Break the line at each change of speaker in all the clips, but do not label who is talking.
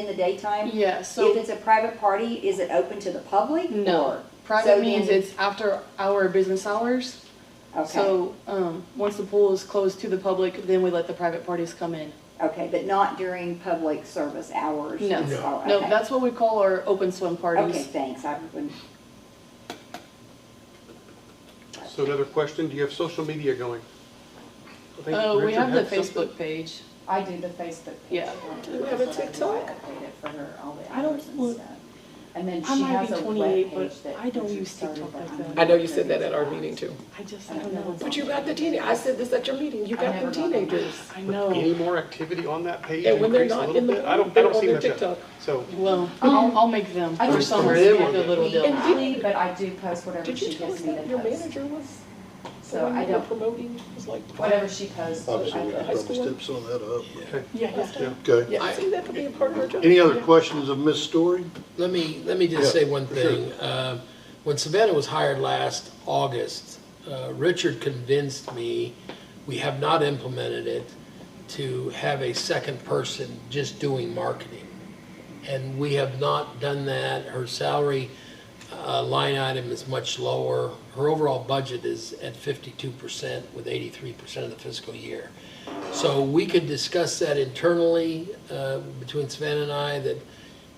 in the daytime?
Yeah,
If
so,
it's a private party, is it open to the public?
no,
or- so
private means
then-
it's after our business hours.
Okay,
So, um, once the pool is closed to the public, then we let the private parties come in.
okay, but not during public service hours?
No. Oh,
It's all-
No,
okay.
that's what we call our open swim
Okay,
parties.
thanks, I've been,
So another question, do you have social media going? I think
Uh, we
Richard
have the
had something.
Facebook page.
I do the Facebook page.
Yeah.
Do
we have a TikTok?
I update it for her, all the
I don't-
hours and
well,
stuff. And then
I
she
might
has
be
a
28, but
webpage that.
I don't
Richard
use TikTok
started, but
like
I'm
that.
not
I know you
sure
said that
it's
at our
allowed.
meeting too.
I just,
I
I don't know.
don't
But you got the teenagers, I said this at your meeting, you got them teenagers.
I
Any
know.
more activity on that page?
And when they're
Increase a
not
little
in the
bit?
pool,
I don't, I
they're
don't
on
see
their
much of it.
TikTok.
So,
Well, I'll, I'll make them
I
for
think
summer.
it's
Be a good little
We
deal.
include, but I do post whatever
Did you
she
tell us
gives me to
that your
post.
manager was, the
So I
one you were
don't,
promoting, was like?
whatever she posts, I
Obviously, we could
post.
probably step some of that up.
okay.
Yeah.
Yeah.
Okay.
Yeah, see, that could be a part of our job.
Any other questions of Ms. Story?
Let me, let me just
Yeah,
say one
for sure.
thing. Um, When Savannah was hired last August, uh, Richard convinced me, we have not implemented it, to have a second person just doing marketing. And we have not done that. Her salary uh, line item is much lower. Her overall budget is at fifty-two percent with eighty-three percent of the fiscal year. So we could discuss that internally uh, between Savannah and I, that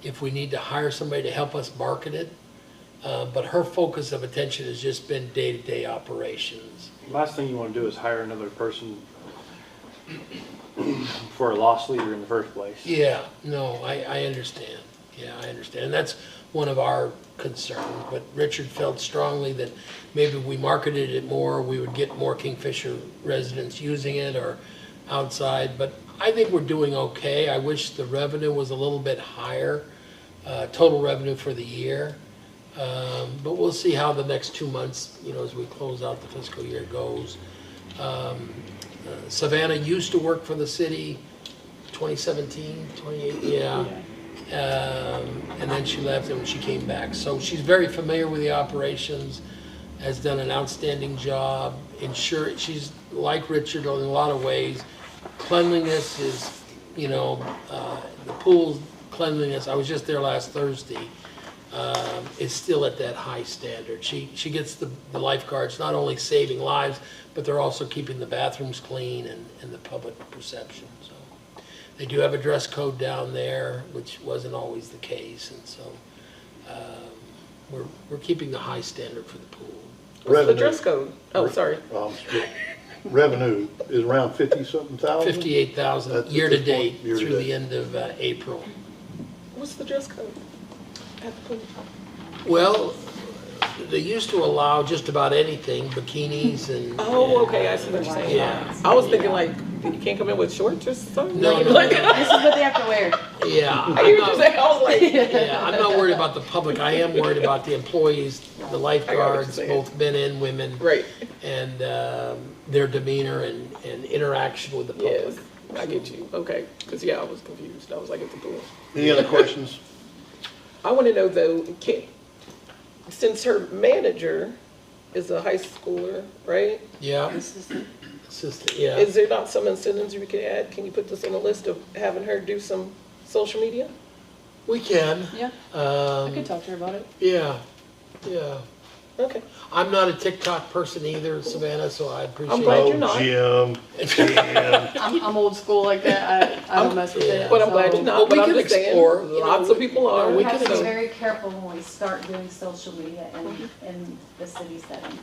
if we need to hire somebody to help us market it. Uh, But her focus of attention has just been day-to-day operations.
Last thing you want to do is hire another person for a loss leader in the first place.
Yeah, no, I, I understand. Yeah, I understand. And that's one of our concerns, but Richard felt strongly that maybe we marketed it more, we would get more Kingfisher residents using it or outside, but I think we're doing okay. I wish the revenue was a little bit higher, uh, total revenue for the year. Um, but we'll see how the next two months, you know, as we close out the fiscal year goes. Um, uh, Savannah used to work for the city, 2017, 28, yeah. Um, And then she left and she came back. So she's very familiar with the operations, has done an outstanding job. Ensure, she's like Richard in a lot of ways. Cleanliness is, you know, uh, the pool's cleanliness, I was just there last Thursday, um, is still at that high standard. She, she gets the the lifeguards, not only saving lives, but they're also keeping the bathrooms clean and, and the public perception, so. They do have a dress code down there, which wasn't always the case, and so um, we're, we're keeping the high standard for the pool.
What's the
Revenue.
dress code? Oh, sorry.
Um, Revenue is around fifty-something thousand?
Fifty-eight thousand
Um, That's at this
year-to-date
point, year-to-date.
through the end of uh, April.
What's the dress code? At the pool?
Well, they used to allow just about anything, bikinis and.
Oh, okay, I see what you're saying.
Yeah.
I was thinking like, you can't come in with shorts or something?
No, no,
Like,
This is what they have to wear.
Yeah.
I hear you say, I was like,
Yeah, I'm not worried about the public, I am worried about the employees, the lifeguards,
saying.
both men and women.
right,
And um, their demeanor and, and interaction with the
yes,
public.
I get you, okay. Because, yeah, I was confused. I was like, at the pool.
Any other questions?
I want to know though, can, since her manager is a high schooler, right?
Yeah, assistant, yeah.
Is there not some incentives we could add? Can you put this on the list of having her do some social media?
We can,
Yeah, I
um,
could talk to her about it.
yeah, yeah.
Okay.
I'm not a TikTok person either, Savannah, so I appreciate.
I'm glad
it.
you're not.
Oh, Jim, Jim.
I'm, I'm old school like that. I, I don't mess with it.
But I'm glad you're
Well,
not,
we
but I'm
can
just saying,
explore.
lots of people are.
We
We
have
can
to be
do-
very careful when we start doing social media in,
Uh-huh.
in the city setting.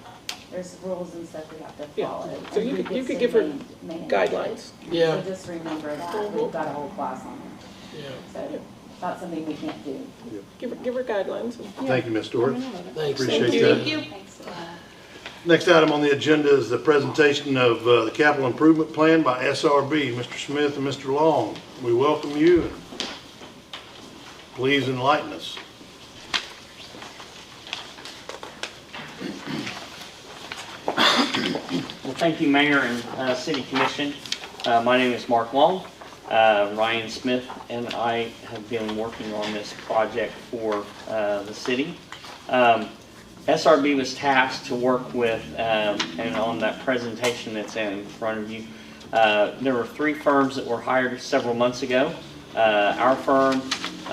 There's rules and stuff we have to
Yeah.
follow.
So
and
you
who
could- you
gets
could
to
give her
man- manage it.
Guidelines.
Yeah.
So just remember that, we've got a whole class on it,
Yeah,
so it's not something we can't do.
Give her, give her guidelines.
Thank you, Ms. Story.
Thanks.
Appreciate that. Next item on the agenda is the presentation of uh, the capital improvement plan by SRB, Mr. Smith and Mr. Long. We welcome you. and Please enlighten us.
Well, thank you, Mayor and uh, City Commission. Uh, My name is Mark Long. Uh, Ryan Smith and I have been working on this project for uh, the city. Um, SRB was tasked to work with, um, and on that presentation that's in front of you, uh, there were three firms that were hired several months ago. Uh, Our firm,